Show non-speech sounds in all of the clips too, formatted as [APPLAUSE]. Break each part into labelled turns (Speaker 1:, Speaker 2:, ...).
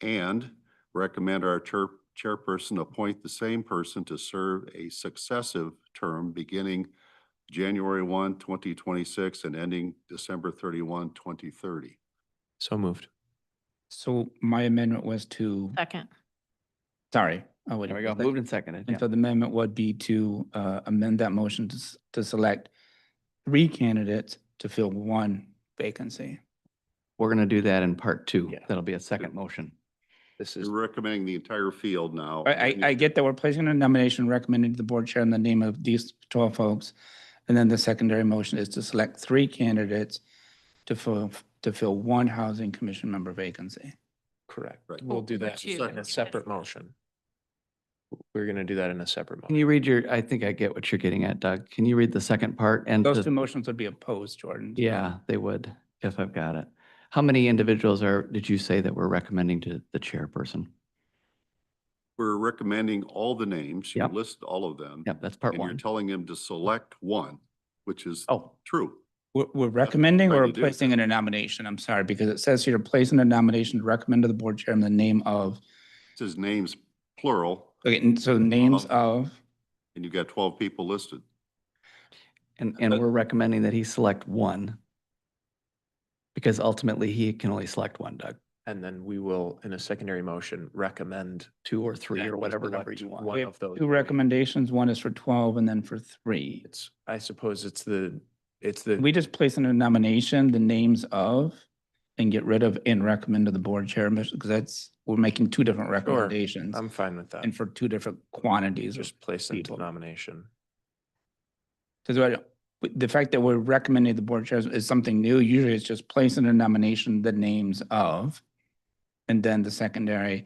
Speaker 1: and recommend our chair- chairperson appoint the same person to serve a successive term beginning January 1, 2026 and ending December 31, 2030.
Speaker 2: So moved.
Speaker 3: So my amendment was to,
Speaker 4: Second.
Speaker 3: sorry. oh, wait,
Speaker 5: There we go.
Speaker 3: was that-
Speaker 5: Moved and seconded.
Speaker 3: And
Speaker 5: Yeah.
Speaker 3: so the amendment would be to uh, amend that motion to, s- to select three candidates to fill one vacancy.
Speaker 5: We're going to do that in part two.
Speaker 2: Yeah.
Speaker 5: That'll be a second motion.
Speaker 2: This is,
Speaker 1: You're recommending the entire field now.
Speaker 3: I, I, I get that we're placing a nomination recommended to the board chair in the name of these twelve folks. And then the secondary motion is to select three candidates to fill, to fill one housing commission member vacancy.
Speaker 2: correct.
Speaker 1: Right.
Speaker 2: We'll do
Speaker 4: We'll
Speaker 2: that
Speaker 4: choose
Speaker 2: in a
Speaker 4: them.
Speaker 2: separate motion. We're going to do that in a separate
Speaker 5: Can
Speaker 2: motion.
Speaker 5: you read your, I think I get what you're getting at, Doug. Can you read the second part and?
Speaker 3: Those
Speaker 5: the-
Speaker 3: two motions would be opposed, Jordan.
Speaker 5: Yeah, they would, if I've got it. How many individuals are, did you say that we're recommending to the chairperson?
Speaker 1: We're recommending all the names. You
Speaker 5: Yep.
Speaker 1: list all of them.
Speaker 5: Yep, that's part
Speaker 1: And you're
Speaker 5: one.
Speaker 1: telling him to select one, which is
Speaker 5: Oh,
Speaker 1: true.
Speaker 3: We're, we're recommending
Speaker 1: trying
Speaker 3: or
Speaker 1: to do.
Speaker 3: placing in a nomination? I'm sorry, because it says here, placing a nomination to recommend to the board chair in the name of,
Speaker 1: It says names plural,
Speaker 3: okay, and so names
Speaker 1: Of.
Speaker 3: of,
Speaker 1: and you've got 12 people listed.
Speaker 5: and, and
Speaker 1: Uh,
Speaker 5: we're recommending that he select one. Because ultimately he can only select one, Doug,
Speaker 2: And then we will, in a secondary motion, recommend
Speaker 5: two or three
Speaker 2: that
Speaker 5: or
Speaker 2: we
Speaker 5: whatever number
Speaker 2: select
Speaker 5: you want.
Speaker 2: One
Speaker 3: We
Speaker 2: of
Speaker 3: have
Speaker 2: those.
Speaker 3: two recommendations. One is for twelve and then for three.
Speaker 2: It's, I suppose it's the, it's the.
Speaker 3: We just place in a nomination the names of and get rid of and recommend to the board chair, because that's, we're making two different recommendations
Speaker 2: I'm fine with that.
Speaker 3: and for two different quantities.
Speaker 2: Just place into
Speaker 3: people.
Speaker 2: nomination.
Speaker 3: Because I, don't- but the fact that we're recommending the board chairs is something new. Usually it's just placing a nomination, the names of, and then the secondary,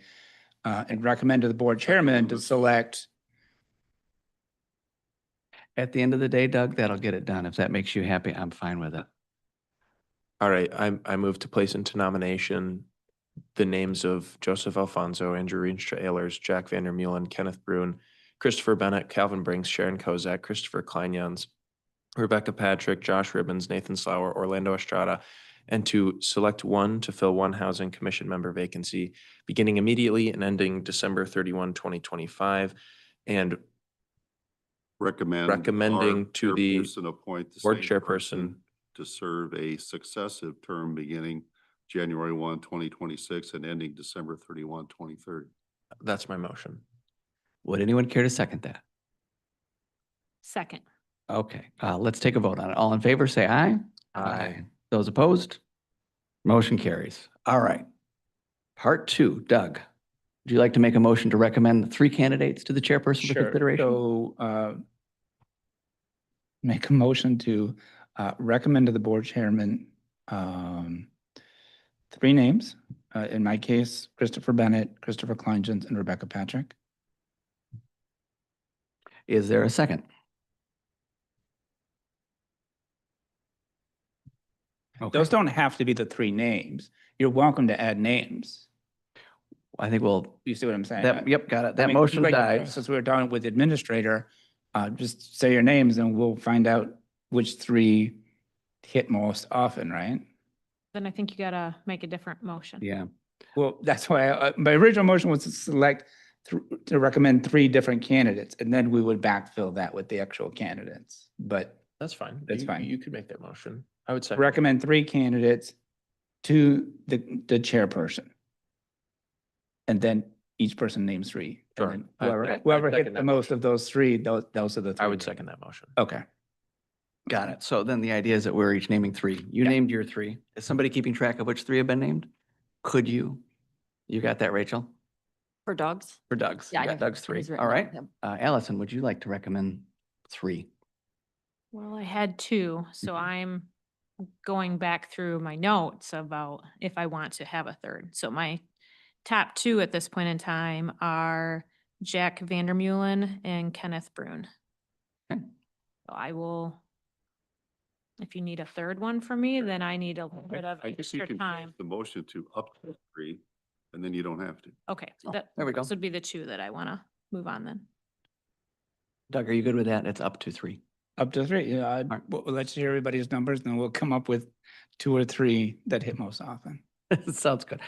Speaker 3: uh, and recommend to the board chairman to
Speaker 1: Recommend.
Speaker 3: select.
Speaker 5: At the end of the day, Doug, that'll get it done. If that makes you happy, I'm fine with it.
Speaker 2: All right, I, I move to place into nomination the names of Joseph Alfonso, Andrew Reinstra Ehlers, Jack Vander Meulen, Kenneth Bruin, Christopher Bennett, Calvin Brinks, Sharon Kozak, Christopher Kleinyans, Rebecca Patrick, Josh Ribbons, Nathan Slower, Orlando Estrada, and to select one to fill one housing commission member vacancy, beginning immediately and ending December 31, 2025, and
Speaker 1: Recommend. our
Speaker 2: Recommending to the
Speaker 1: chairperson appoint the
Speaker 2: board
Speaker 1: same
Speaker 2: chairperson
Speaker 1: person To serve a successive term beginning January 1, 2026 and ending December 31, 2030.
Speaker 2: That's my motion.
Speaker 5: Would anyone care to second that?
Speaker 4: Second.
Speaker 5: Okay, uh, let's take a vote on it. All in favor, say aye.
Speaker 2: Aye.
Speaker 5: Those opposed? Motion carries. All right. Part two, Doug, would you like to make a motion to recommend the three candidates to the chairperson for consideration?
Speaker 3: So, uh, make a motion to, uh, recommend to the board chairman, um, three names. Uh, in my case, Christopher Bennett, Christopher Kleingens, and Rebecca Patrick.
Speaker 5: Is there a second? Okay,
Speaker 3: Those don't have to be the three names. You're welcome to add names.
Speaker 5: I think we'll,
Speaker 3: You see what I'm saying?
Speaker 5: that, yep, got it. That
Speaker 3: mean,
Speaker 5: motion
Speaker 3: right,
Speaker 5: dies.
Speaker 3: Since we were done with the administrator, uh, just say your names and we'll find out which three hit most often, right?
Speaker 4: Then I think you gotta make a different motion.
Speaker 5: Yeah,
Speaker 3: Well, that's why, uh, my original motion was to select, thr- to recommend three different candidates, and then we would backfill that with the actual candidates. But
Speaker 2: That's fine.
Speaker 3: That's
Speaker 2: You-
Speaker 3: fine.
Speaker 2: You could make that motion. I would second.
Speaker 3: recommend three candidates to the, the chairperson. And then each person names three.
Speaker 2: Sure.
Speaker 3: And then
Speaker 2: I- I-
Speaker 3: Whoever,
Speaker 2: I
Speaker 3: whoever
Speaker 2: second
Speaker 3: hit the
Speaker 2: that
Speaker 3: most of those three, those, those are the three.
Speaker 2: I would
Speaker 3: names.
Speaker 2: second that motion.
Speaker 3: Okay.
Speaker 5: got it. So then the idea is that we're each naming three. You
Speaker 3: Yeah.
Speaker 5: named your three. Is somebody keeping track of which three have been named? Could you? You got that, Rachel?
Speaker 6: For dogs?
Speaker 5: For Doug's.
Speaker 6: Yeah,
Speaker 5: You
Speaker 6: I
Speaker 5: got
Speaker 6: have-
Speaker 5: Doug's
Speaker 6: it
Speaker 5: three.
Speaker 6: is written
Speaker 5: All
Speaker 6: down,
Speaker 5: right.
Speaker 6: yep.
Speaker 5: Uh, Allison, would you like to recommend three?
Speaker 4: Well, I had two, so
Speaker 1: Mm-hmm.
Speaker 4: I'm going back through my notes about if I want to have a third. So my top two at this point in time are Jack Vandermeulen and Kenneth Brune.
Speaker 5: Okay.
Speaker 4: So I will, if you need a third one for me, then I need a little bit of
Speaker 1: I guess you
Speaker 4: extra
Speaker 1: can
Speaker 4: time.
Speaker 1: change the motion to up to three, and then you don't have to.
Speaker 4: Okay,
Speaker 5: Oh,
Speaker 4: that,
Speaker 5: there we go.
Speaker 4: those would be the two that I want to move on then.
Speaker 5: Doug, are you good with that? It's up to three. [LAUGHS]
Speaker 3: Up to three, yeah. I'd-
Speaker 5: right.
Speaker 3: We'll, we'll let you hear everybody's numbers, and then we'll come up with two or three that hit most often.
Speaker 5: Sounds good.